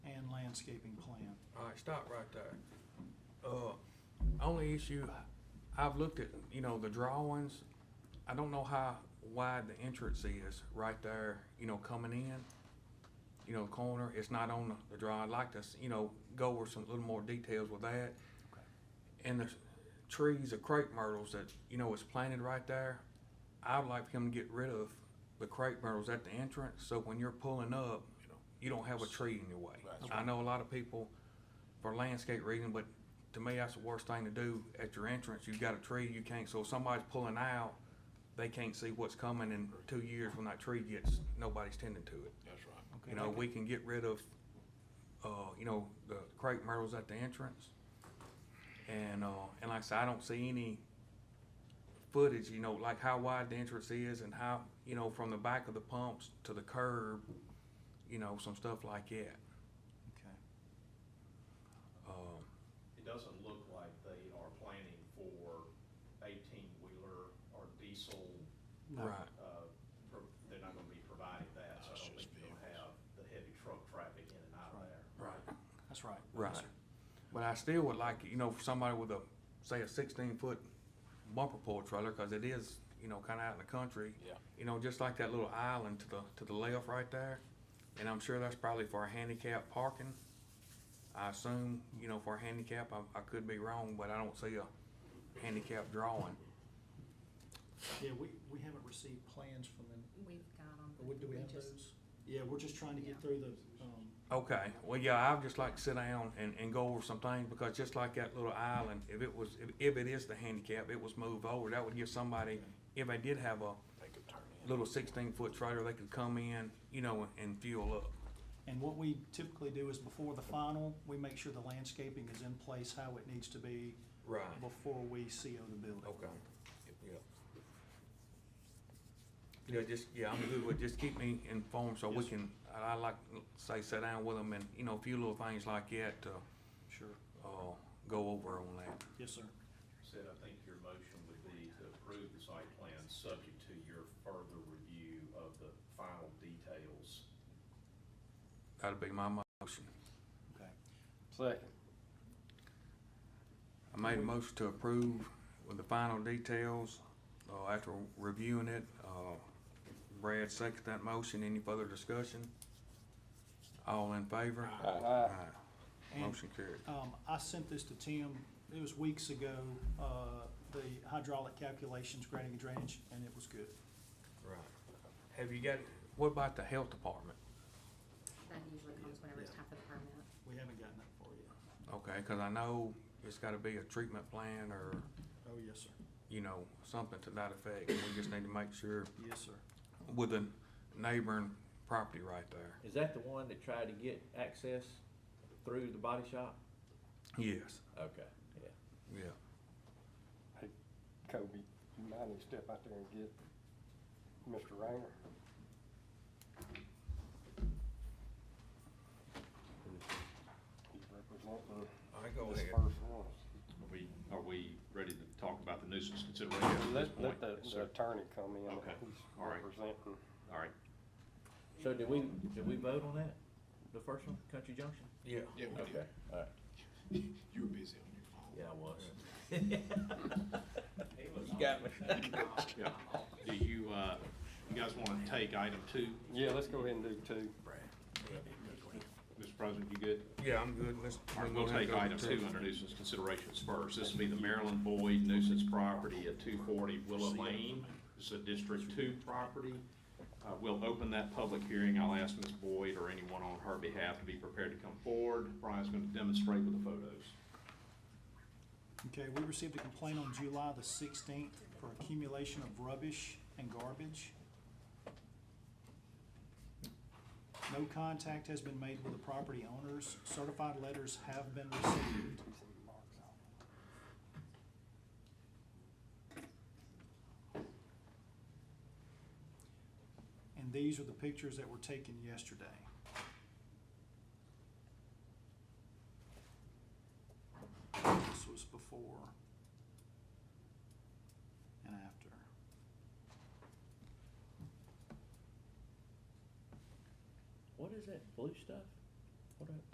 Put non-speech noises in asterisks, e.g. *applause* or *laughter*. landscaping plan. All right, stop right there. Uh, only issue, I've looked at, you know, the drawings, I don't know how wide the entrance is right there, you know, coming in. You know, corner, it's not on the draw, I'd like to, s- you know, go over some little more details with that. And the s- trees, the crepe myrtles that, you know, is planted right there, I'd like him to get rid of the crepe myrtles at the entrance, so when you're pulling up, you don't have a tree in your way. I know a lot of people, for landscape reason, but to me, that's the worst thing to do at your entrance. You've got a tree, you can't, so if somebody's pulling out, they can't see what's coming in two years when that tree gets, nobody's tending to it. That's right. Okay, You know, we can get rid of, uh, you know, the crepe myrtles at the entrance. And, uh, and like I said, I don't see any footage, you know, like how wide the entrance is and how, you know, from the back of the pumps to the curb, you know, some stuff like that. Okay. Um, It doesn't look like they are planning for eighteen-wheeler or diesel, No. right. uh, pro- they're not gonna be providing that, so I That's don't think just you're gonna have vehicles. the heavy truck traffic in and out of there. Right. That's right. Right. But I still would like, you know, for somebody with a, say, a sixteen foot bumper pull trailer, cause it is, you know, kinda out in the country. Yeah. You know, just like that little island to the, to the left right there, and I'm sure that's probably for handicap parking. I assume, you know, for handicap, I, I could be wrong, but I don't see a handicap drawing. Yeah, we, we haven't received plans from them. We've got them. Or what- Do we have those? Yeah, we're just trying to get Yeah. through the, um, Okay, well, yeah, I'd just like to sit down and, and go over some things, because just like that little island, if it was, if, if it is the handicap, it was moved over, that would give somebody, if they did have a They could turn in. little sixteen foot trailer, they could come in, you know, and fuel up. And what we typically do is before the final, we make sure the landscaping is in place how it needs to be Right. before we CO the building. Okay, yeah. Yeah, just, yeah, I'm good with, just keep me informed, so we Yes, sir. can, I, I like, say, sit down with them and, you know, a few little things like that to, Sure. uh, go over on that. Yes, sir. Said, I think your motion would be to approve the site plan, subject to your further review of the final details. That'd be my motion. Okay. Second. I made a motion to approve with the final details, uh, after reviewing it, uh, Brad seconded that motion, any further discussion? All in favor? Aye. Aye. Motion carried. Um, I sent this to Tim, it was weeks ago, uh, the hydraulic calculations, grading and drainage, and it was good. Right. Have you got, what about the health department? That usually comes whenever it's time for the permit. We haven't gotten that far yet. Okay, cause I know it's gotta be a treatment plan or, Oh, yes, sir. you know, something to that effect. We just need to make sure Yes, sir. with the neighboring property right there. Is that the one that tried to get access through the body shop? Yes, Okay, yeah. yeah. Kobe, you might need to step out there and get Mr. Rainer. He's representing I go this ahead. first one. Are we, are we ready to talk about the nuisance consideration at this point? Let, let the Yes, the sir. attorney come in. Okay, He's all right. representing. All right, So did we, did we vote on that? The first one, Country Junction? Yeah. Yeah, we did. Alright. *laughs* You were busy on your phone. Yeah, I *laughs* was. *laughs* You got me. yeah. Do you, uh, you guys wanna take item two, Yeah, let's go ahead and do two. Mr. President, you good? Yeah, I'm good. Let's. All right, go we'll ahead and take go to item two under nuisance considerations first. This will be the Maryland Boyd nuisance property at two forty Willow Lane. It's a District Two property. Uh, we'll open that public hearing. I'll ask Ms. Boyd or anyone on her behalf to be prepared to come forward. Brian's gonna demonstrate with the photos. Okay, we received a complaint on July the sixteenth for accumulation of rubbish and garbage. No contact has been made with the property owners. Certified letters have been received. And these are the pictures that were taken yesterday. This was before and after. What is that blue stuff? What are?